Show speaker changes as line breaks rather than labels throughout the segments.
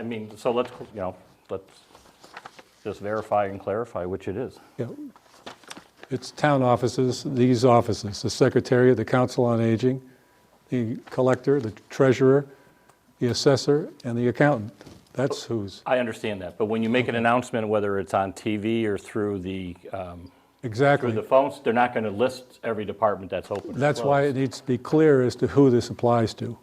I mean, so let's, you know, let's just verify and clarify which it is.
Yeah. It's town offices, these offices, the Secretary of the Council on Aging, the collector, the treasurer, the assessor, and the accountant. That's who's,
I understand that, but when you make an announcement, whether it's on TV or through the, um, through
exactly.
the phones, they're not going to list every department that's open. or
That's why
closed.
it needs to be clear as to who this applies to.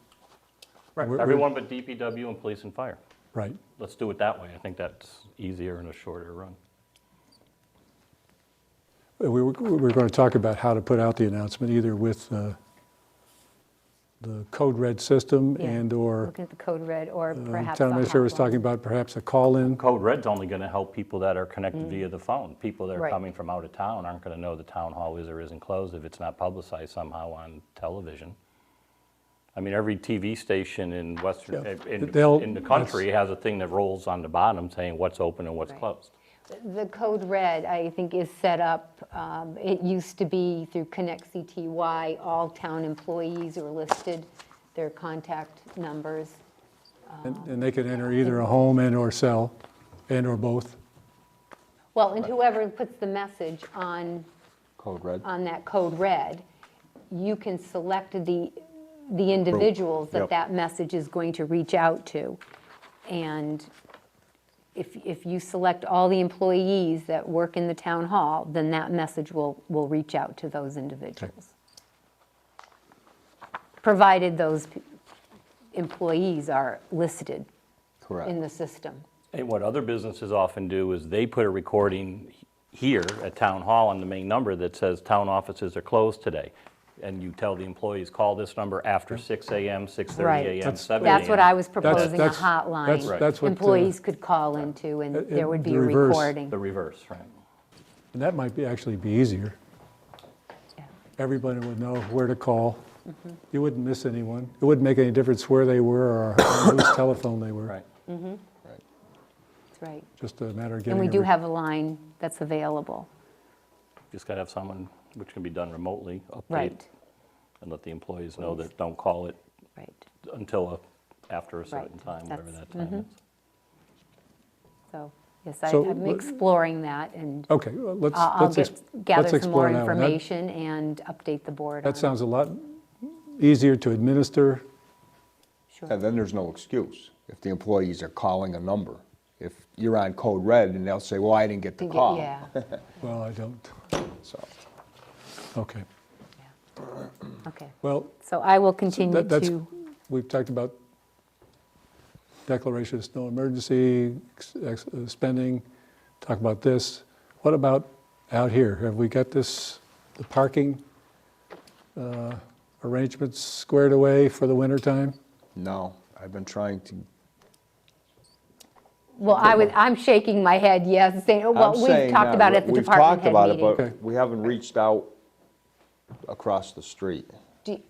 Right,
we're-
Everyone but DPW and police and fire.
Right.
Let's do it that way. I think that's easier and a shorter run.
We were, we were going to talk about how to put out the announcement, either with uh, the code red system
Yeah,
and/or
Look at the code red or
uh,
perhaps.
town
a
administrator was
hotline.
talking about perhaps a call-in.
Code Red's only going to help people that are connected via the phone. People that are
Mm. Right.
coming from out of town aren't going to know the town hall is or isn't closed if it's not publicized somehow on television. I mean, every TV station in Western, eh,
Yeah,
in,
they'll-
in the country has a thing that rolls on the bottom saying what's open and what's
Right.
closed.
The code red, I think, is set up, um, it used to be through Connect CTY, all town employees are listed, their contact numbers.
And and they could enter either a home and/or cell, and/or both.
Well, and whoever puts the message on,
Code red.
on that code red, you can select the, the individuals that
Yep.
that message is going to reach out to. And if, if you select all the employees that work in the town hall, then that message will, will reach out to those individuals. Provided those p- employees are listed in
Correct.
the system.
And what other businesses often do is they put a recording he- here at Town Hall on the main number that says, "Town offices are closed today." And you tell the employees, "Call this number after 6 AM, 6:30
Right.
AM,
That's-
7
That's what I was
That's-
proposing, a
that's- that's-
hotline.
that's what, uh,
Employees could call into and
it-
there would be
the
a
reverse.
recording.
The reverse, right?
And that might be, actually be easier.
Yeah. Mm-hmm.
Everybody would know where to call. You wouldn't miss anyone. It wouldn't make any difference where they were or on whose telephone they were.
Right.
Right.
That's right.
Just a matter of
And
getting.
we
a
do
re-
have a line that's available.
Just got to have someone, which can be done remotely, update
Right,
and let the employees know that don't call it
right.
until, a- after a certain
Right.
time, whatever that
That's-
time is.
So, yes, I-
So,
I'm
let-
exploring that and
Okay, well, let's,
uh, I'll I'll
let's
get-
ex- let's
gather some more
explore that one. That-
information and update the board on
That
it.
sounds a lot easier to administer.
Sure.
And then there's no excuse if the employees are calling a number. If you're on code red and they'll say, well, I didn't get the
Think it-
call.
Yeah,
Well, I don't,
So,
okay.
okay.
Well,
So I will continue
that- that's,
to,
we've talked about declaration of snow emergency, ex- ex- uh, spending, talk about this. What about out here? Have we got this, the parking uh, arrangements squared away for the wintertime?
no, I've been trying to,
well, I was, I'm shaking my head, yes, saying, oh,
I'm
well,
saying
we've talked
now,
about it at the
we've
department
talked about
head
it,
meeting.
Okay.
But we haven't reached out across the street.
Do-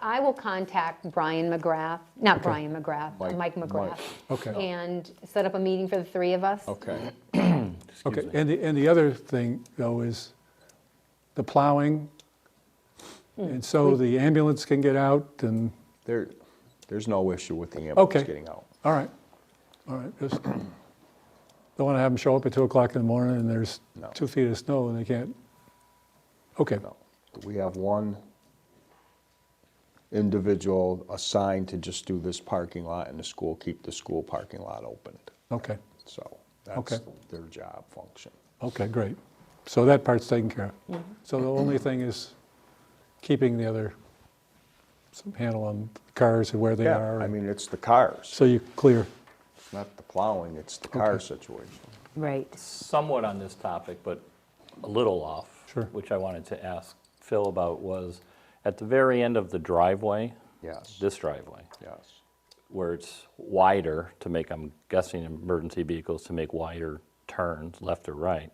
I will contact Brian McGrath, not Brian McGrath,
Mike-
Mike McGrath.
Okay.
And set up a meeting for the three of us.
Okay,
Excuse
Okay,
me.
and the, and the other thing, though, is the plowing,
Hmm.
and so the ambulance can get out, and,
there, there's no issue with the
Okay.
ambulance getting out.
all right, all right, just, don't want to have them show up at 2 o'clock in the morning, and there's
No.
two feet of snow, and they can't, okay,
No. We have one individual assigned to just do this parking lot and the school, keep the school parking lot opened.
okay,
So that's
Okay.
their job function.
okay, great. So that part's taken care of. So the only thing is keeping the other, some handle on cars and where they are,
I
and
mean, it's the cars,
so you clear,
it's not the plowing, it's the car situation.
Right.
somewhat on this topic, but a little off.
Sure.
Which I wanted to ask Phil about was, at the very end of the driveway.
Yes.
This driveway,
Yes.
where it's wider to make, I'm guessing emergency vehicles to make wider turns, left or right,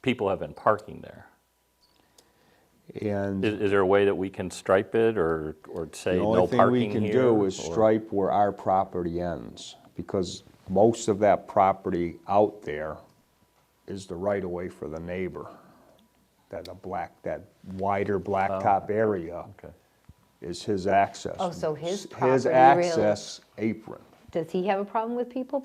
people have been parking there. Is,
And
is there a way that we can stripe it or, or say
the
no
only thing we
parking here?
can do is
or-
stripe where our property ends, because most of that property out there is the right-of-way for the neighbor. That a black, that wider blacktop area
Oh, Okay.
is his access.
Oh, so his
His
property really-
access apron.
Does he have a problem with people